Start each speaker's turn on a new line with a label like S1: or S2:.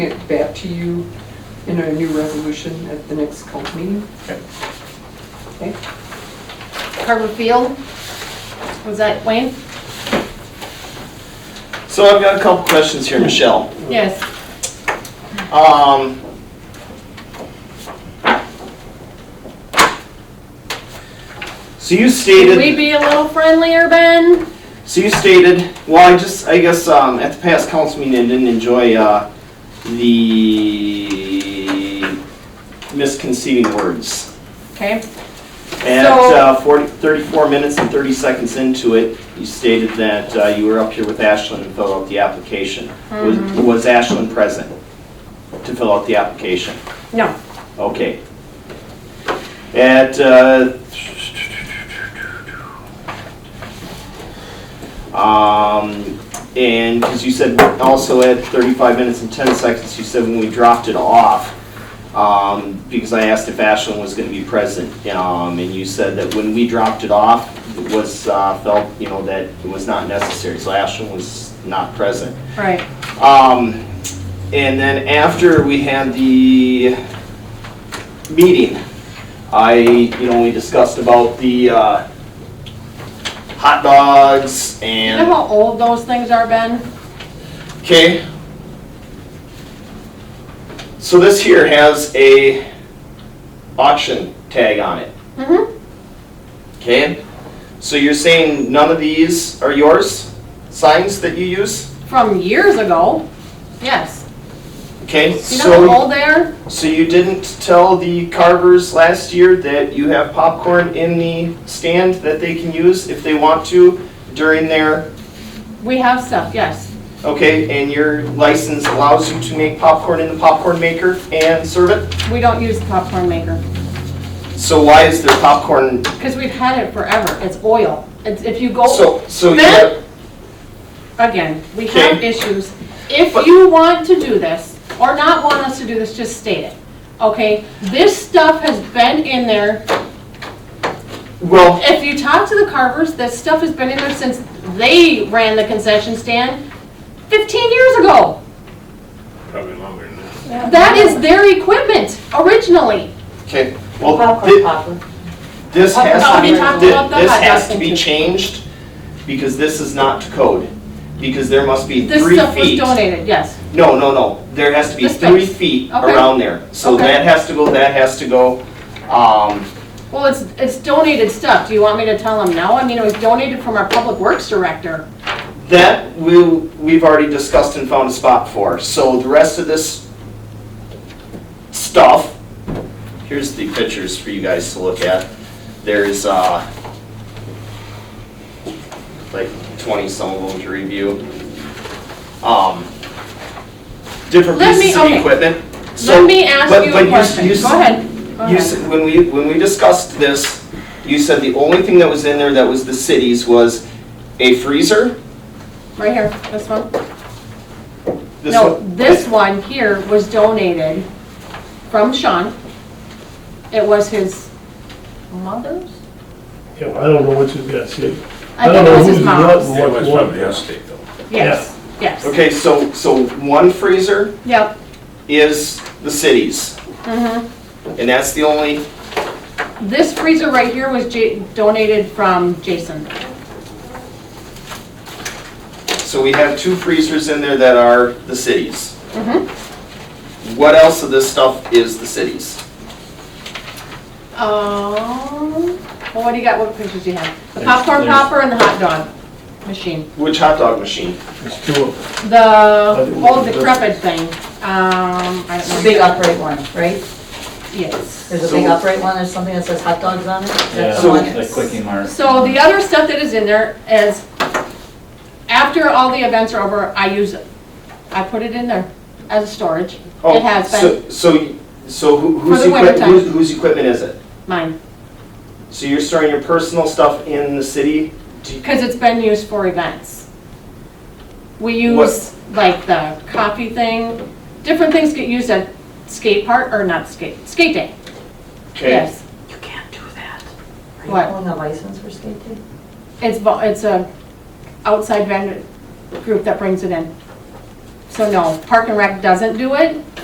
S1: it back to you in a new resolution at the next council meeting.
S2: Okay.
S1: Okay?
S3: Harbor Field, was that Wayne?
S2: So I've got a couple questions here, Michelle.
S3: Yes.
S2: Um, so you
S3: Should we
S2: stated,
S3: be a little friendlier, Ben?
S2: so you stated, well, I just, I guess, um, at the past council meeting, I didn't enjoy, uh, the misconceiving words.
S3: Okay,
S2: At
S3: So-
S2: uh, 40, 34 minutes and 30 seconds into it, you stated that uh, you were up here with Ashland and filled out the application. Was- Was Ashland present to fill out the application?
S3: no,
S2: Okay. At, uh, um, and, because you said also at 35 minutes and 10 seconds, you said when we dropped it off, um, because I asked if Ashland was going to be present, um, and you said that when we dropped it off, it was, uh, felt, you know, that it was not necessary, so Ashland was not present.
S3: right.
S2: Um, and then after we had the meeting, I, you know, we discussed about the, uh, hot dogs
S3: You know
S2: and,
S3: how old those things are, Ben?
S2: okay? So this here has a auction tag on it,
S3: Mm-hmm.
S2: okay? So you're saying none of these are yours, signs that you use,
S3: From years ago, yes.
S2: okay?
S3: You
S2: So.
S3: know how old they are?
S2: So you didn't tell the carvers last year that you have popcorn in the stand that they can use if they want to during their,
S3: We have stuff, yes,
S2: okay, and your license allows you to make popcorn in the popcorn maker and serve it?
S3: we don't use the popcorn maker,
S2: So why is there popcorn?
S3: because we've had it forever, it's oil. It's, if you go.
S2: So, so you
S3: Ben?
S2: have,
S3: again, we have
S2: Okay.
S3: issues. If
S2: But-
S3: you want to do this, or not want us to do this, just state it, okay? This stuff has been in there,
S2: well,
S3: if you talk to the carvers, this stuff has been in there since they ran the concession stand fifteen years ago.
S4: Probably longer than that.
S3: That is their equipment originally.
S2: okay, well,
S5: Popcorn
S2: thi-
S5: popper.
S2: this has
S3: Oh,
S2: to be,
S3: we talked about
S2: thi-
S3: the
S2: this
S3: hot
S2: has
S3: dog
S2: to be
S3: thing too.
S2: changed because this is not to code. Because there must be
S3: This
S2: three
S3: stuff was
S2: feet.
S3: donated, yes,
S2: No, no, no, there has to be
S3: This
S2: three
S3: fence.
S2: feet
S3: Okay.
S2: around there. So
S3: Okay.
S2: that has to go, that has to go. Um,
S3: well, it's, it's donated stuff, do you want me to tell them no? I mean, it was donated from our public works director.
S2: That we, we've already discussed and found a spot for. So the rest of this stuff, here's the pictures for you guys to look at. There's, uh, like twenty some of them to review. Um, different
S3: Let me-
S2: pieces of
S3: okay.
S2: equipment. So-
S3: Let me ask
S2: but-
S3: you
S2: but
S3: a
S2: s-
S3: question,
S2: you
S3: go
S2: s-
S3: ahead, go ahead.
S2: You, s- when we, when we discussed this, you said the only thing that was in there that was the cities was a freezer,
S3: Right here, this one?
S2: this
S3: No,
S2: one?
S3: this one here was donated from Sean. It was his mother's?
S6: Yeah, I don't know what you've got, see.
S3: I think it was his
S6: who's what
S3: mom's.
S6: and
S4: It was
S6: what's what.
S4: probably his state though.
S3: Yes, yes.
S2: Okay, so, so one freezer
S3: Yep,
S2: is the cities,
S3: mhm.
S2: and that's the only,
S3: This freezer right here was Ja- donated from Jason.
S2: so we have two freezers in there that are the cities.
S3: Mhm. Mm-hmm.
S2: What else of this stuff is the cities?
S3: Um, well, what do you got, what pictures do you have? The
S6: There's-
S3: popcorn
S6: there's-
S3: popper and the hot dog machine.
S2: Which hot dog machine?
S6: There's two of them.
S3: The
S6: think
S3: old
S6: we-
S3: decrepit thing, um, I
S5: The
S3: don't
S5: big
S3: know.
S5: upright one, right?
S3: Yes.
S5: There's a big upright one, there's something that says hot dogs on it. Is that the
S2: So-
S5: one?
S7: Like Quickie Mart.
S3: So the other stuff that is in there is, after all the events are over, I use it. I put it in there as a storage.
S2: Oh,
S3: It has been
S2: So, so, so who- whose
S3: the
S2: equipment,
S3: wintertime.
S2: whose, whose equipment is it?
S3: mine,
S2: So you're storing your personal stuff in the city? Do you-
S3: because it's been used for events. We
S2: What-
S3: use like the coffee thing, different things get used at skate park, or not skate, skate day,
S2: Okay,
S3: yes.
S5: You can't do that. Are you
S3: What?
S5: pulling a license for skate day?
S3: It's, vo- it's a outside vendor group that brings it in. So no, Park and Rec doesn't do it.